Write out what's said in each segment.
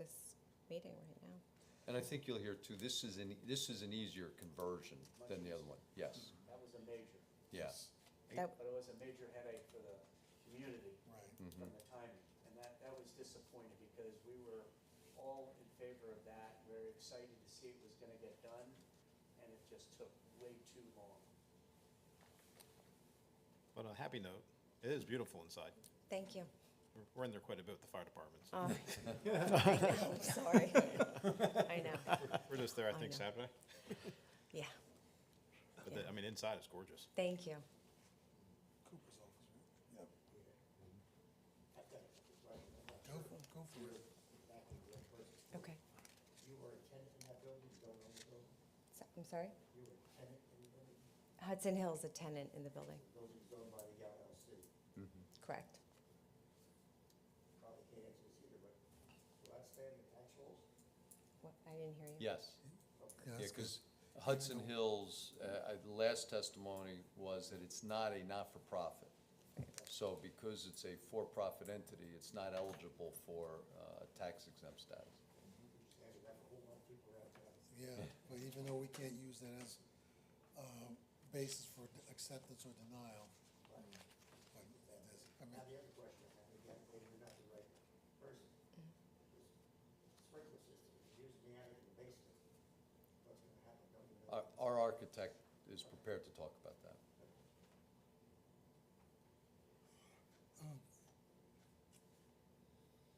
this meeting right now. And I think you'll hear too, this is an, this is an easier conversion than the other one, yes, That was a major, yes. That, but it was a major headache for the community Right. Mhm. from the timing. And that, that was disappointing because we were all in favor of that, very excited to see it was gonna get done, and it just took way too long. But on a happy note, it is beautiful inside. thank you. We're- We're in there quite a bit with the fire department, so Oh. I'm sorry. I know, we're just there, I I think, know. Saturday. yeah, But the- I mean, inside is gorgeous. thank you. Cooper's office, right? Yep. I've got it right in the- Go, go for it. exactly right, but Okay. You were a tenant in that building, you don't own the building, So- I'm sorry? you were a tenant in the building, Hudson Hill's a tenant in the building, the building's owned by the LLC. correct? Probably can't answer this either, but do I stand the actuals? What, I didn't hear you. Yes, Yeah, yeah, that's good. because Hudson Hills, uh, I- the last testimony was that it's not a not-for-profit. So because it's a for-profit entity, it's not eligible for uh, tax exempt status. Yeah, but even though we can't use that as uh, basis for d- acceptance or denial. but it is- I mean, Now, the other question I have, again, maybe you're not the right person. is Sprinkler system, you're using the attic and the basement, what's gonna happen, don't you know? Our, our architect is prepared to talk about that.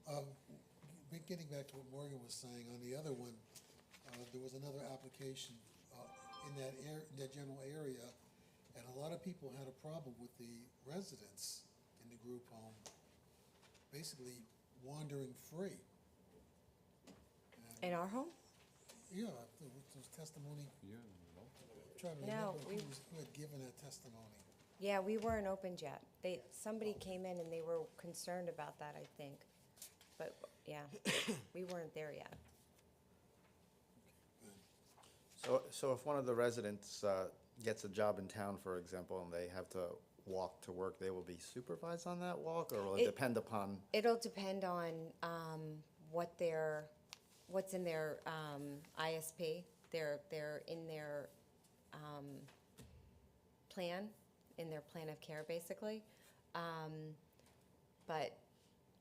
um, be- Getting back to what Morgan was saying, on the other one, uh, there was another application uh, in that air, in that general area, and a lot of people had a problem with the residents in the group home basically wandering free. In And, our home? yeah, there was there was testimony Yeah. Trying No, to remember who we- was, who had given that testimony. Yeah, we weren't opened yet. They, Oh. somebody came in and they were concerned about that, I think. But, yeah, we weren't there yet. So, so if one of the residents uh, gets a job in town, for example, and they have to walk to work, they will be supervised on that walk, or will It- it depend upon? It'll depend on um, what their, what's in their um, ISP, their, their, in their um, plan, in their plan of care, basically. Um, But,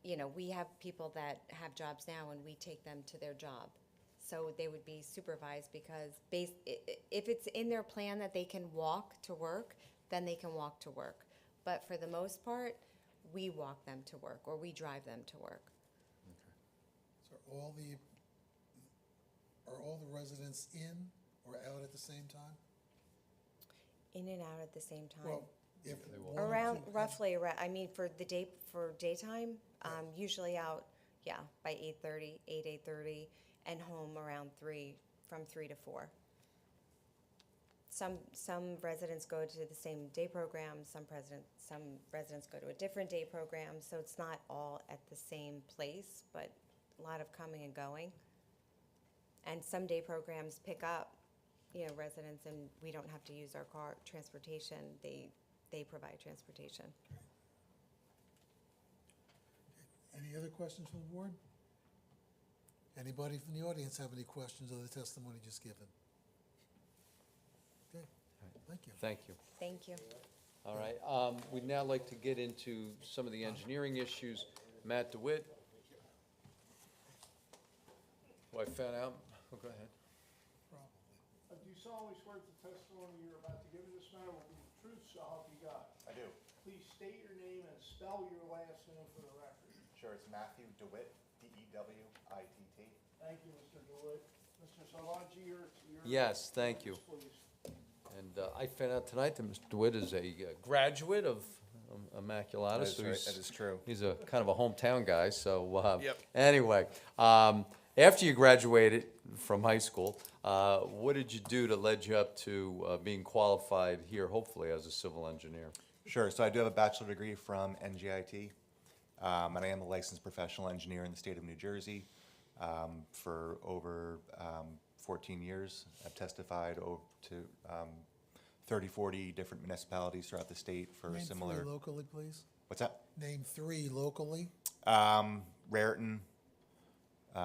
you know, we have people that have jobs now and we take them to their job. So they would be supervised because base, i- i- if it's in their plan that they can walk to work, then they can walk to work. But for the most part, we walk them to work or we drive them to work. So are all the, are all the residents in or out at the same time? In and out at the same time. Well, if. They one walk. or Around, two- roughly, arou- I mean, for the day, for daytime, um, usually out, yeah, by eight thirty, eight, eight thirty, and home around three, from three to four. Some, some residents go to the same day program, some president, some residents go to a different day program, so it's not all at the same place, but a lot of coming and going. And some day programs pick up, you know, residents and we don't have to use our car, transportation, they, they provide transportation. Any other questions from the board? Anybody from the audience have any questions of the testimony just given? Okay, thank you. Thank you. Thank you. All right, um, we'd now like to get into some of the engineering issues. Matt DeWitt. Who I found out, oh, go ahead. Probably. Uh, Do you solemnly swear that the testimony you're about to give in this matter will be the truth, so help you God? I do. Please state your name and spell your last name for the record. Sure, it's Matthew DeWitt, E D-E-W-I-T-T. Thank you, Mr. Deloitte. Mr. Salaji, your, your. Yes, thank you. Please. And uh, I found out tonight that Mr. DeWitt is a uh, graduate of um, Immaculata. That is so right, he's- that is true. He's a kind of a hometown guy, so, uh, Yep. anyway, um, after you graduated from high school, uh, what did you do that led you up to, uh, being qualified here, hopefully, as a civil engineer? Sure, so I do have a bachelor degree from NGIT, um, and I am a licensed professional engineer in the state of New Jersey. Um, for over um, 14 years, I've testified over to um, 30, 40 different municipalities throughout the state for Name three similar. locally, please. What's that? Name three locally. Um, Raritan,